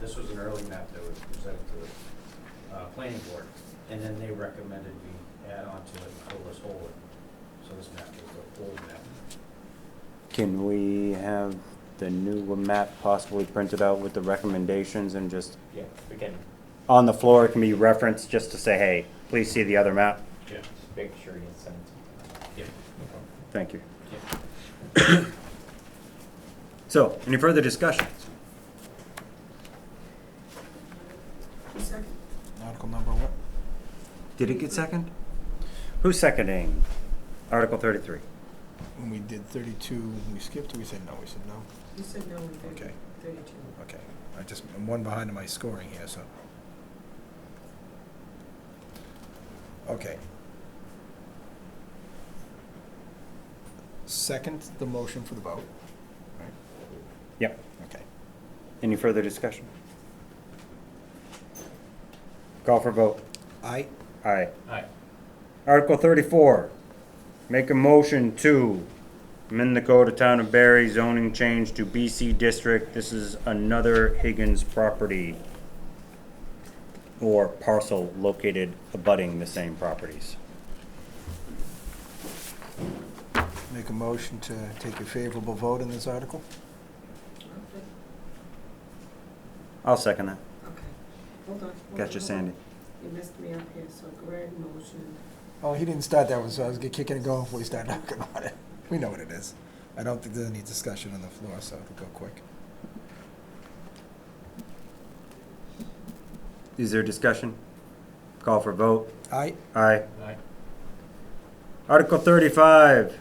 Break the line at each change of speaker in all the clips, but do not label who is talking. This was an early map that was presented to the uh, planning board, and then they recommended we add on to it Colas Holwood. So this map is the old map.
Can we have the new map possibly printed out with the recommendations and just,
Yeah, we can.
on the floor, it can be referenced just to say, hey, please see the other map?
Yeah,
Make sure you send it to
yeah.
Thank you.
yeah.
So, any further discussion?
Article number what?
Did it get second? Who's seconding Article thirty-three?
When we did thirty-two, we skipped, or we said no, we said no?
You said no in thirty,
Okay.
thirty-two.
Okay, I just, I'm one behind in my scoring here, so. Okay. Second, the motion for the vote, right?
Yep.
Okay.
Any further discussion? Call for vote.
Aye,
Aye.
All right,
Article thirty-four, make a motion to amend the code of town of Barry zoning change to BC district. This is another Higgins property or parcel located abutting the same properties.
make a motion to take a favorable vote in this article?
I'll second that.
Okay, hold on. hold on,
Gotcha,
hold
Sandy.
on. You messed me up here, so Greg motion,
Oh, he didn't start that one, so I was kicking and going before he started talking about it. We know what it is. I don't think there's any discussion on the floor, so it'll go quick.
Is there discussion? Call for vote.
Aye,
Aye.
all right.
Article thirty-five,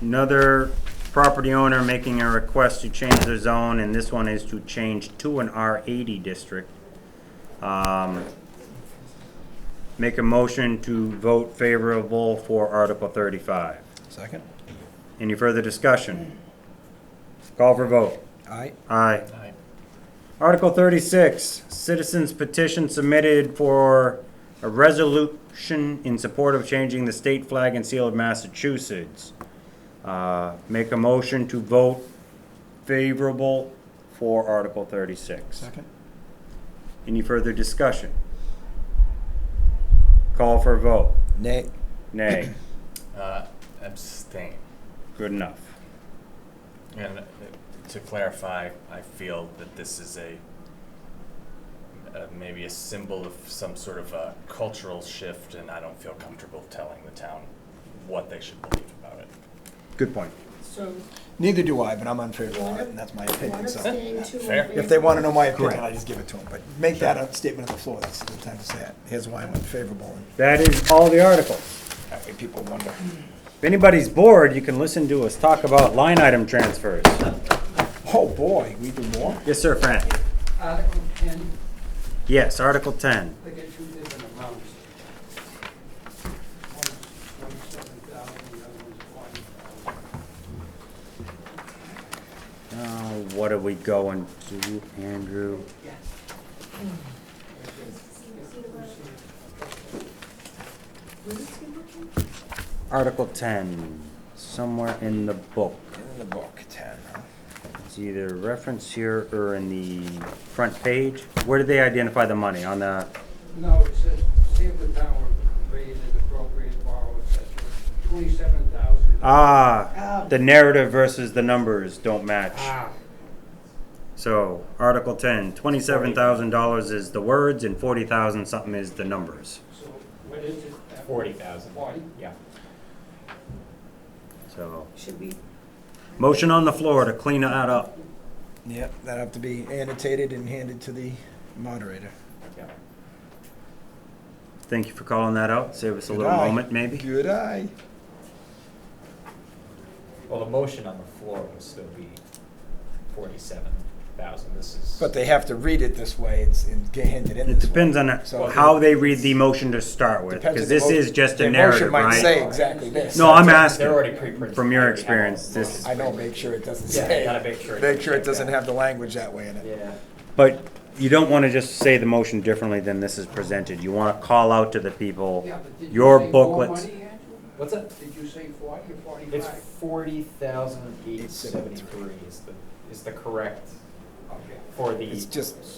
another property owner making a request to change their zone, and this one is to change to an R eighty district. Um, Make a motion to vote favorable for Article thirty-five.
second?
Any further discussion? Call for vote.
Aye,
Aye.
Aye.
Article thirty-six, citizens petition submitted for a resolution in support of changing the state flag and seal of Massachusetts. Uh, Make a motion to vote favorable for Article thirty-six.
second?
Any further discussion? Call for a vote.
Nay.
Nay.
Uh, abstain.
Good enough.
And uh, to clarify, I feel that this is a, uh, maybe a symbol of some sort of a cultural shift, and I don't feel comfortable telling the town what they should believe about it.
Good point.
so.
Neither do I, but I'm unfavorable on it, and that's my opinion, so.
One abstain, two in
Fair.
If they want to know my
Correct.
opinion, I just give it to them, but make that a statement on the floor, that's the time to say it. Here's why I'm unfavorable, and
That is all the articles.
that way people wonder.
If anybody's bored, you can listen to us talk about line item transfers.
Oh, boy, we do more?
Yes, sir, Fran.
Article ten,
Yes, Article ten.
they get two different amounts. One's twenty-seven thousand, the other one's forty thousand.
Uh, what are we going to, Andrew? Article ten, somewhere in the book.
In the book, ten.
It's either reference here or in the front page. Where did they identify the money? On the,
No, it says, see if the town will raise and appropriate borrow, et cetera, twenty-seven thousand.
ah, the narrative versus the numbers don't match. So, Article ten, twenty-seven thousand dollars is the words and forty thousand something is the numbers.
So what is it?
Forty thousand.
Forty?
Yeah.
So,
Should be,
motion on the floor to clean that up.
Yep, that'll have to be annotated and handed to the moderator.
Yeah.
Thank you for calling that out. Save us a little
Good eye.
moment, maybe.
Good eye.
Well, the motion on the floor would still be forty-seven thousand, this is.
But they have to read it this way and s- and get handed in
It
this way.
depends on
So-
how they read the motion to start with,
Depends on
because
the
this
mo-
is just a
their
narrative,
motion might say
right?
exactly this.
No, I'm
They're already
asking,
pre-printed.
from your
They have all
experience,
the
this-
motions.
I know, make sure it doesn't
Yeah,
say.
you gotta make sure it
Make
doesn't
sure it
say
doesn't
that.
have the language that way in it.
Yeah.
but you don't want to just say the motion differently than this is presented. You want to call out to the people,
Yeah, but did you
your
say more
booklets.
money, Andrew?
What's that?
Did you say forty or
It's
forty-five?
forty thousand eight seventy-three is the, is the correct
Okay.
for the.
It's just